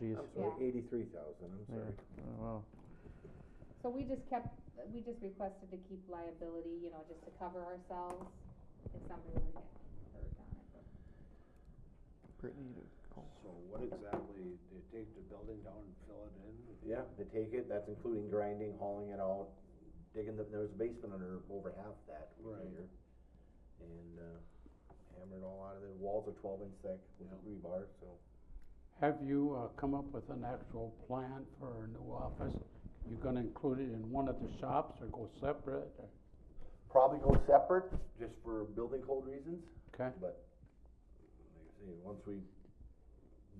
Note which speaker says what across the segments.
Speaker 1: Geez,
Speaker 2: I'm sorry,
Speaker 3: Yeah.
Speaker 2: eighty-three thousand, I'm
Speaker 1: Yeah.
Speaker 2: sorry.
Speaker 1: oh, wow.
Speaker 3: So we just kept, we just requested to keep liability, you know, just to cover ourselves if somebody were to get hurt on it.
Speaker 1: Brittany, you do cool.
Speaker 4: So what exactly, they take the building down and fill it in?
Speaker 2: Yeah, they take it, that's including grinding, hauling it out, digging the, there was a basement under, over half that we
Speaker 4: Right.
Speaker 2: measured. And, uh, hammered all out of there, walls are twelve inch thick with
Speaker 4: Yeah.
Speaker 2: rebar, so.
Speaker 5: Have you uh, come up with an actual plan for a new office? You gonna include it in one of the shops or go separate? or-
Speaker 2: Probably go separate, just for building code reasons,
Speaker 5: Okay,
Speaker 2: but, like I say, once we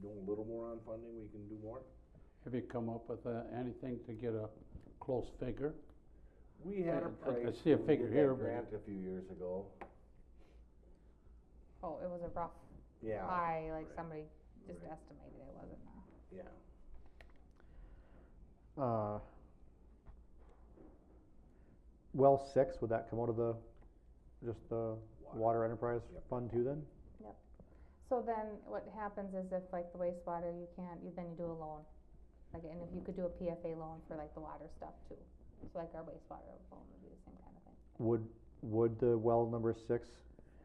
Speaker 2: do a little more on funding, we can do more.
Speaker 5: have you come up with uh, anything to get a close figure?
Speaker 2: We had a
Speaker 5: I- I- I
Speaker 2: price.
Speaker 5: see a
Speaker 2: when we
Speaker 5: figure
Speaker 2: did that
Speaker 5: here, but-
Speaker 2: Grant a few years ago,
Speaker 3: Oh, it was a rough
Speaker 2: yeah.
Speaker 3: pie, like
Speaker 2: Oh, right,
Speaker 3: somebody just
Speaker 2: right.
Speaker 3: estimated it wasn't a.
Speaker 2: Yeah,
Speaker 1: Uh, well, six, would that come out of the, just the water enterprise
Speaker 2: Yep.
Speaker 1: fund too then?
Speaker 3: So then what happens is if like the wastewater, you can't, you, then you do a loan. Like, and if you could do a PFA loan for like the water stuff too. So like our wastewater loan would be the same kind of thing.
Speaker 1: Would, would the well number six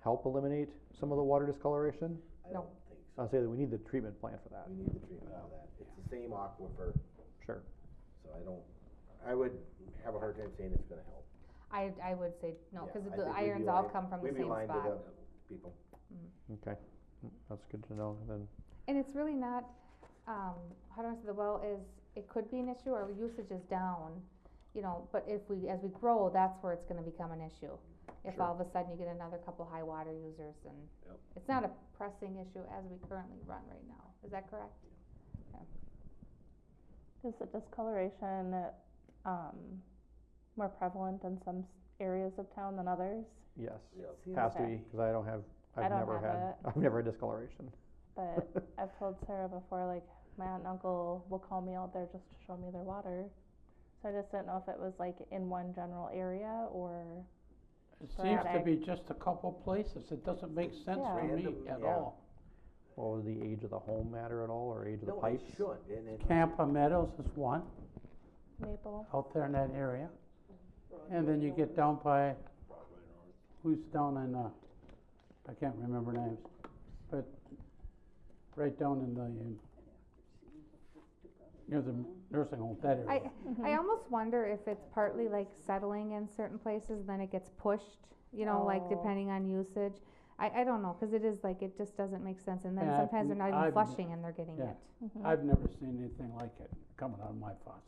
Speaker 1: help eliminate some of the water discoloration?
Speaker 2: I
Speaker 3: No.
Speaker 2: don't think so.
Speaker 1: I'll say that we need the treatment plan for that,
Speaker 2: We need the treatment of that. Um, It's the same aquifer,
Speaker 6: Mm-hmm.
Speaker 1: sure.
Speaker 2: so I don't, I would have a hard time saying it's gonna help.
Speaker 3: I, I would say
Speaker 2: Yeah,
Speaker 3: no, cause
Speaker 2: I
Speaker 3: the
Speaker 2: think we'd be
Speaker 3: irons all
Speaker 2: lying-
Speaker 3: come from the
Speaker 2: we'd be
Speaker 3: same
Speaker 2: lying to
Speaker 3: spot.
Speaker 2: the People.
Speaker 1: Okay, Mm, that's good to know then.
Speaker 3: And it's really not, um, how do I say, the well is, it could be an issue, our usage is down, you know, but if we, as we grow, that's where it's gonna become an issue. If all of a sudden you get another couple high water users and,
Speaker 4: Yep.
Speaker 3: it's not a pressing issue as we currently run right now, is that correct?
Speaker 6: Is the discoloration um, more prevalent in some s- areas of town than others?
Speaker 1: Yes,
Speaker 2: Yep.
Speaker 1: has to
Speaker 6: Okay.
Speaker 1: be, cause I don't have,
Speaker 6: I
Speaker 1: I've
Speaker 6: don't
Speaker 1: never
Speaker 6: have
Speaker 1: had, I've never had discoloration.
Speaker 6: But I've told Sarah before, like my aunt and uncle will call me out there just to show me their water. So I just didn't know if it was like in one general area or
Speaker 5: It seems to
Speaker 6: Right.
Speaker 5: be just a couple places, it doesn't make sense to me
Speaker 2: Random,
Speaker 5: at
Speaker 2: yeah.
Speaker 5: all.
Speaker 1: Well, would the age of the home matter at all, or age of the
Speaker 2: No, it
Speaker 1: pipes?
Speaker 2: should, and it.
Speaker 5: Campa Meadows is one,
Speaker 6: maple.
Speaker 5: out there in that area. And then you get down by, who's down in, uh, I can't remember names, but right down in the, um, near the nursing home, that area.
Speaker 3: I,
Speaker 1: Mm-hmm.
Speaker 3: I almost wonder if it's partly like settling in certain places, then it gets pushed, you know, like
Speaker 6: Oh.
Speaker 3: depending on usage. I, I don't know, cause it is like, it just doesn't make sense, and then
Speaker 5: Yeah, I've
Speaker 3: sometimes they're
Speaker 5: n-
Speaker 3: not
Speaker 5: I've
Speaker 3: even
Speaker 5: n-
Speaker 3: flushing and they're getting it.
Speaker 5: yeah. I've never seen anything like it coming out of my faucet.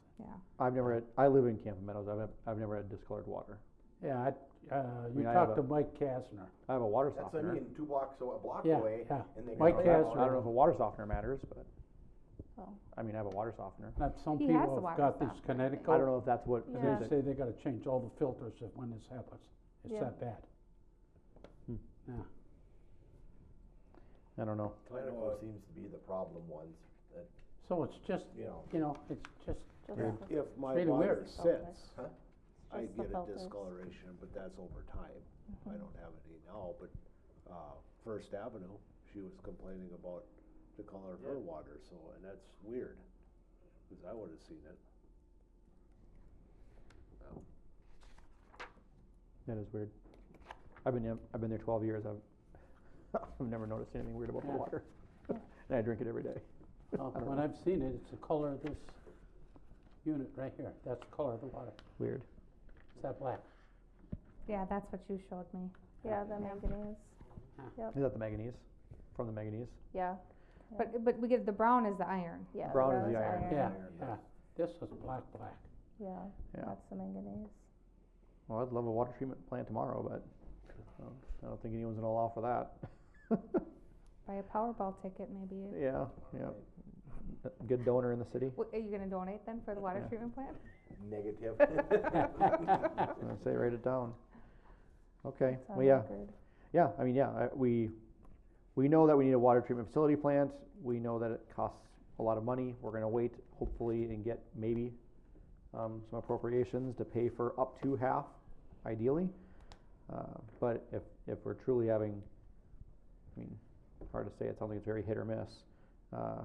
Speaker 1: I've never had, I live in Camp Meadows, I've, I've never had discolored water.
Speaker 5: Yeah, I, uh, you
Speaker 1: mean, I have
Speaker 5: talked to Mike Kastner.
Speaker 1: I have a water
Speaker 2: That's, I
Speaker 1: softener.
Speaker 2: mean, two blocks, aw- a block
Speaker 5: Yeah,
Speaker 2: away.
Speaker 5: yeah.
Speaker 2: and they
Speaker 5: Mike
Speaker 2: cut it
Speaker 1: I
Speaker 5: has
Speaker 2: out.
Speaker 1: don't know if a water softener matters, but,
Speaker 6: Oh.
Speaker 1: I mean, I have a water softener.
Speaker 5: Not some
Speaker 3: He has
Speaker 5: people
Speaker 3: the water
Speaker 5: have got
Speaker 3: softener,
Speaker 5: these
Speaker 3: I think.
Speaker 5: Connecticut.
Speaker 1: I don't know if that's what,
Speaker 6: Yeah.
Speaker 5: They
Speaker 6: Is
Speaker 1: is it-
Speaker 5: say they gotta change all the filters if, when this happens. It's
Speaker 6: Yeah.
Speaker 5: that bad.
Speaker 1: I don't know.
Speaker 2: Clinical seems to be the problem ones, that,
Speaker 5: So it's just,
Speaker 2: you know,
Speaker 5: you know, it's just,
Speaker 6: Just
Speaker 1: Yeah.
Speaker 6: the-
Speaker 4: If my
Speaker 5: Really
Speaker 4: water
Speaker 5: weird.
Speaker 4: sits,
Speaker 2: Huh?
Speaker 4: I
Speaker 6: Just the Mm-hmm.
Speaker 4: get a
Speaker 6: filters.
Speaker 4: discoloration, but that's over time. I don't have any now, but, uh, First Avenue, she was complaining about the color of her water, so, and that's weird. Cause I would've seen it.
Speaker 1: That is weird. I've been, in- I've been there twelve years, I've, I've never noticed anything weird about the
Speaker 5: Yeah.
Speaker 1: water. And I drink it every day.
Speaker 5: uh, when I've seen it, it's the color of this unit right here. That's the color of the water.
Speaker 1: Weird.
Speaker 5: It's that black.
Speaker 3: Yeah, that's what you showed me.
Speaker 6: yeah, the manganese.
Speaker 1: Is that the manganese? From the manganese?
Speaker 6: Yeah,
Speaker 3: But, but we get, the brown is the iron.
Speaker 6: yeah.
Speaker 1: Brown is
Speaker 6: rose
Speaker 1: the iron.
Speaker 5: Yeah,
Speaker 2: Iron,
Speaker 5: yeah. This was black, black.
Speaker 6: Yeah,
Speaker 1: Yeah.
Speaker 6: that's the manganese.
Speaker 1: Well, I'd love a water treatment plant tomorrow, but I don't- I don't think anyone's gonna allow for that.
Speaker 3: Buy a Powerball ticket maybe.
Speaker 1: Yeah, yeah. A Good donor in the city.
Speaker 3: Wh- Are you gonna donate then for the water
Speaker 1: Uh, Yeah.
Speaker 3: treatment plant?
Speaker 2: negative.
Speaker 1: I say write it down. Okay,
Speaker 6: It's on
Speaker 1: well, yeah,
Speaker 6: record.
Speaker 1: yeah, I mean, yeah, I- we, we know that we need a water treatment facility plant. We know that it costs a lot of money. We're gonna wait hopefully and get maybe, um, some appropriations to pay for up to half ideally. Uh, but if, if we're truly having, I mean, hard to say, it sounds like it's very hit or miss. Uh,